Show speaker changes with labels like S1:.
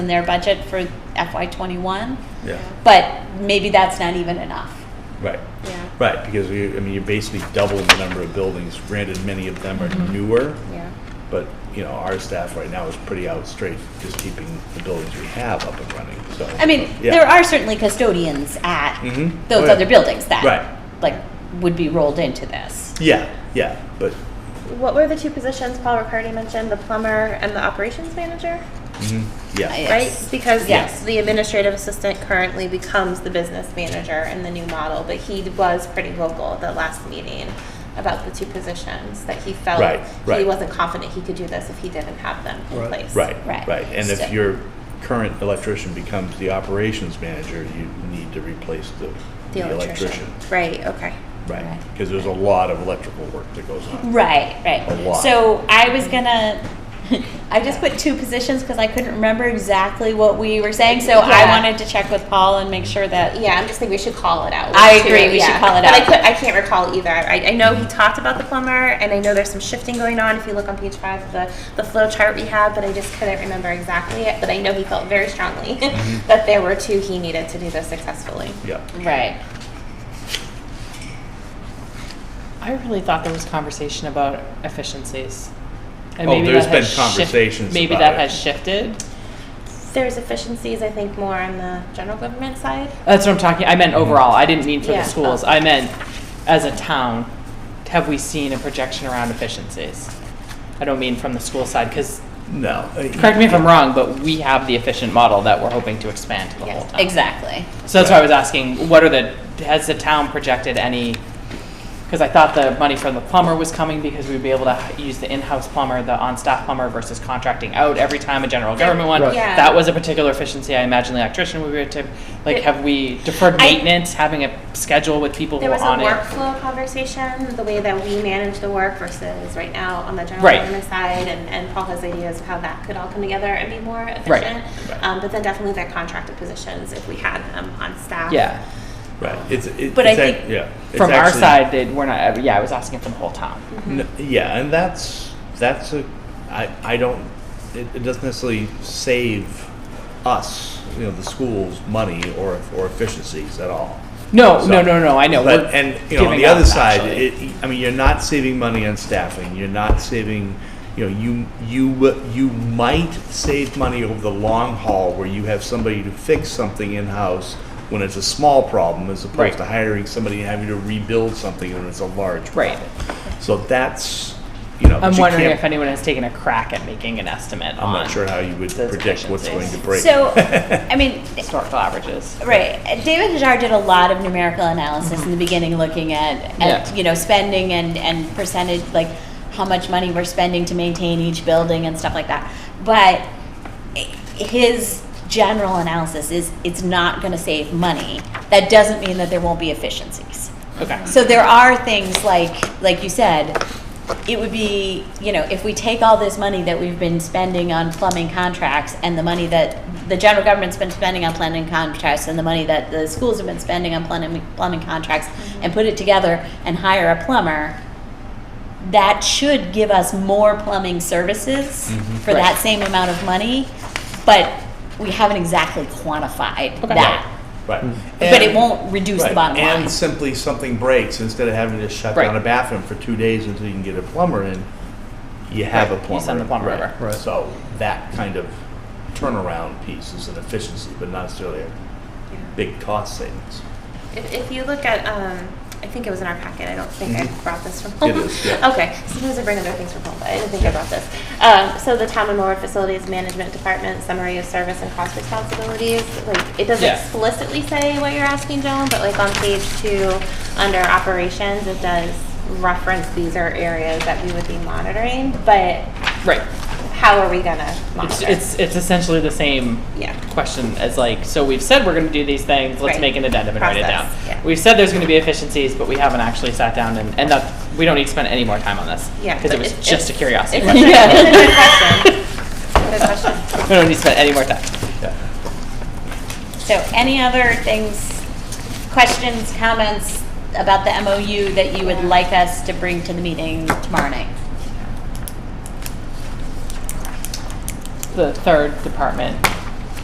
S1: in their budget for FY twenty-one,
S2: Yeah,
S1: but maybe that's not even enough.
S2: right,
S3: Yeah.
S2: right, because we, I mean, you're basically doubling the number of buildings, granted, many of them are newer,
S1: Yeah.
S2: but, you know, our staff right now is pretty out straight, just keeping the buildings we have up and running, so.
S1: I mean,
S2: Yeah.
S1: there are certainly custodians at
S2: Mhm. Oh,
S1: those
S2: yeah.
S1: other buildings that
S2: Right.
S1: like would be rolled into this.
S2: Yeah, yeah, but,
S3: What were the two positions Paul Riccardi mentioned? The plumber and the operations manager,
S2: mhm, yeah,
S1: Yes.
S3: right? Because
S1: Yes.
S3: the administrative assistant currently becomes the business manager in the new model, but he was pretty vocal at the last meeting about the two positions that he felt
S2: Right,
S3: he
S2: right.
S3: wasn't confident he could do this if he didn't have them in
S4: Right.
S3: place.
S2: right,
S1: Right.
S2: right, and
S1: So-
S2: if your current electrician becomes the operations manager, you need to replace the,
S3: The electrician. Right, okay.
S2: Right,
S1: Right.
S2: because there's a lot of electrical work that goes on.
S1: Right, right.
S2: A lot.
S1: So I was gonna, I just put two positions because I couldn't remember exactly what we were saying. So I
S3: Yeah.
S1: wanted to check with Paul and make sure that
S3: Yeah, I'm just thinking we should call it out.
S1: I agree, we should call it
S3: but I,
S1: out.
S3: could, I can't recall either. I, I know he talked about the plumber, and I know there's some shifting going on. If you look on page five of the, the flow chart we had, but I just couldn't remember exactly it. But I know he felt very strongly that there were two he needed to do this successfully.
S2: Yeah,
S1: right.
S5: I really thought there was conversation about efficiencies. And
S2: Oh,
S5: maybe
S2: there's
S5: that
S2: been
S5: has shif-
S2: conversations
S5: Maybe
S2: about
S5: that
S2: it.
S5: has shifted.
S3: There's efficiencies, I think, more on the general government side.
S5: That's what I'm talking, I
S2: Mm-hmm.
S5: meant overall, I didn't mean for
S3: Yeah.
S5: the schools, I meant as a town, have we seen a projection around efficiencies? I don't mean from the school side, because,
S2: no. uh,
S5: correct me if I'm wrong, but we have the efficient model that we're hoping to expand to the
S3: Yes,
S5: whole town.
S1: Exactly.
S5: So that's why I was asking, what are the, has the town projected any, because I thought the money from the plumber was coming because we'd be able to h- use the in-house plumber, the on-staff plumber versus contracting out every time a general government one.
S3: Right. Yeah.
S5: That was a particular efficiency. I imagine the electrician would be a tip. Like,
S3: It-
S5: have we deferred
S1: I-
S5: maintenance, having a schedule with people who
S3: There
S5: are
S3: was a
S5: on it?
S3: workflow conversation, the way that we manage the work versus right now on the general
S5: Right.
S3: government side, and, and Paul has ideas of how that could all come together and be more
S5: Right.
S3: efficient. Um, but then definitely their contracted positions, if we had them on staff.
S5: Yeah,
S2: Right, it's, it-
S1: But
S2: it's
S1: I
S2: ac-
S1: think-
S2: yeah. it's
S5: from our
S2: actually-
S5: side, that we're not, yeah, I was asking from the whole town.
S2: n- Yeah, and that's, that's a, I, I don't, it, it doesn't necessarily save us, you know, the schools, money or, or efficiencies at all.
S5: No,
S2: So-
S5: no, no, no, I know. We're
S2: But, and, you know, on
S5: giving
S2: the other
S5: up,
S2: side,
S5: actually.
S2: it, I mean, you're not saving money on staffing, you're not saving, you know, you, you, w- you might save money over the long haul where you have somebody to fix something in-house when it's a small problem, as opposed
S5: Right.
S2: to hiring somebody and having to rebuild something when it's a large
S5: Right.
S2: problem. So that's, you know. but
S5: I'm
S2: you
S5: wondering
S2: can't-
S5: if anyone has taken a crack at making an estimate on.
S2: I'm not sure how you would
S5: those
S2: predict what's going to
S5: efficiencies.
S2: break.
S1: So, I mean,
S5: historical averages.
S1: Right. Uh, David Hajar did a lot of numerical analysis in the beginning, looking at, at
S5: Yeah.
S1: you know spending and and percentage, like how much money we're spending to maintain each building and stuff like that. But i- his general analysis is it's not going to save money. That doesn't mean that there won't be efficiencies.
S5: Okay.
S1: So there are things like, like you said, it would be, you know, if we take all this money that we've been spending on plumbing contracts and the money that the general government's been spending on plumbing contracts and the money that the schools have been spending on plumbing, plumbing contracts
S5: Mm-hmm.
S1: and put it together and hire a plumber, that should give us more plumbing services for
S5: Mm-hmm. Right.
S1: that same amount of money, but we haven't exactly quantified
S5: Okay.
S1: that.
S2: Right.
S1: But it
S2: And-
S1: won't reduce the
S2: Right,
S1: bottom line.
S2: And simply something breaks, instead of having to shut
S5: Right.
S2: down a bathroom for two days until you can get a plumber in, you have a
S5: Right,
S2: plumber.
S5: you send the plumber
S2: Right.
S5: over.
S4: Right.
S2: So that kind of turnaround piece is an efficiency, but not necessarily a big cost savings.
S3: If, if you look at, um, I think it was in our packet. I don't think I
S2: Mhm.
S3: brought this from home.
S2: It is, yeah.
S3: Okay. Sometimes I bring other things from home, but I didn't think I brought this. Um, so the Town and Moore Facilities Management Department summary of service and cost responsibilities. Like it doesn't
S5: Yeah.
S3: explicitly say what you're asking, Joan, but like on page two, under operations, it does reference these are areas that we would be monitoring. But
S5: Right.
S3: how are we gonna
S5: It's,
S3: monitor?
S5: it's, it's essentially the same
S3: Yeah.
S5: question as like, so we've said we're going to do these things, let's
S3: Right.
S5: make an addendum and write it down.
S3: Process, yeah.
S5: We've said there's going to be efficiencies, but we haven't actually sat down and, and that, we don't need to spend any more time on this.
S3: Yeah,
S5: Because it
S3: but
S5: was
S3: it's-
S5: just a
S3: it's-
S5: curiosity
S3: it's a
S5: question.
S3: good- it's a good
S5: We
S3: question. Good question.
S5: don't need to spend any more time.
S2: Yeah.
S1: So any other things, questions, comments about the MOU that you would like us to bring to the meeting tomorrow night?
S5: The third department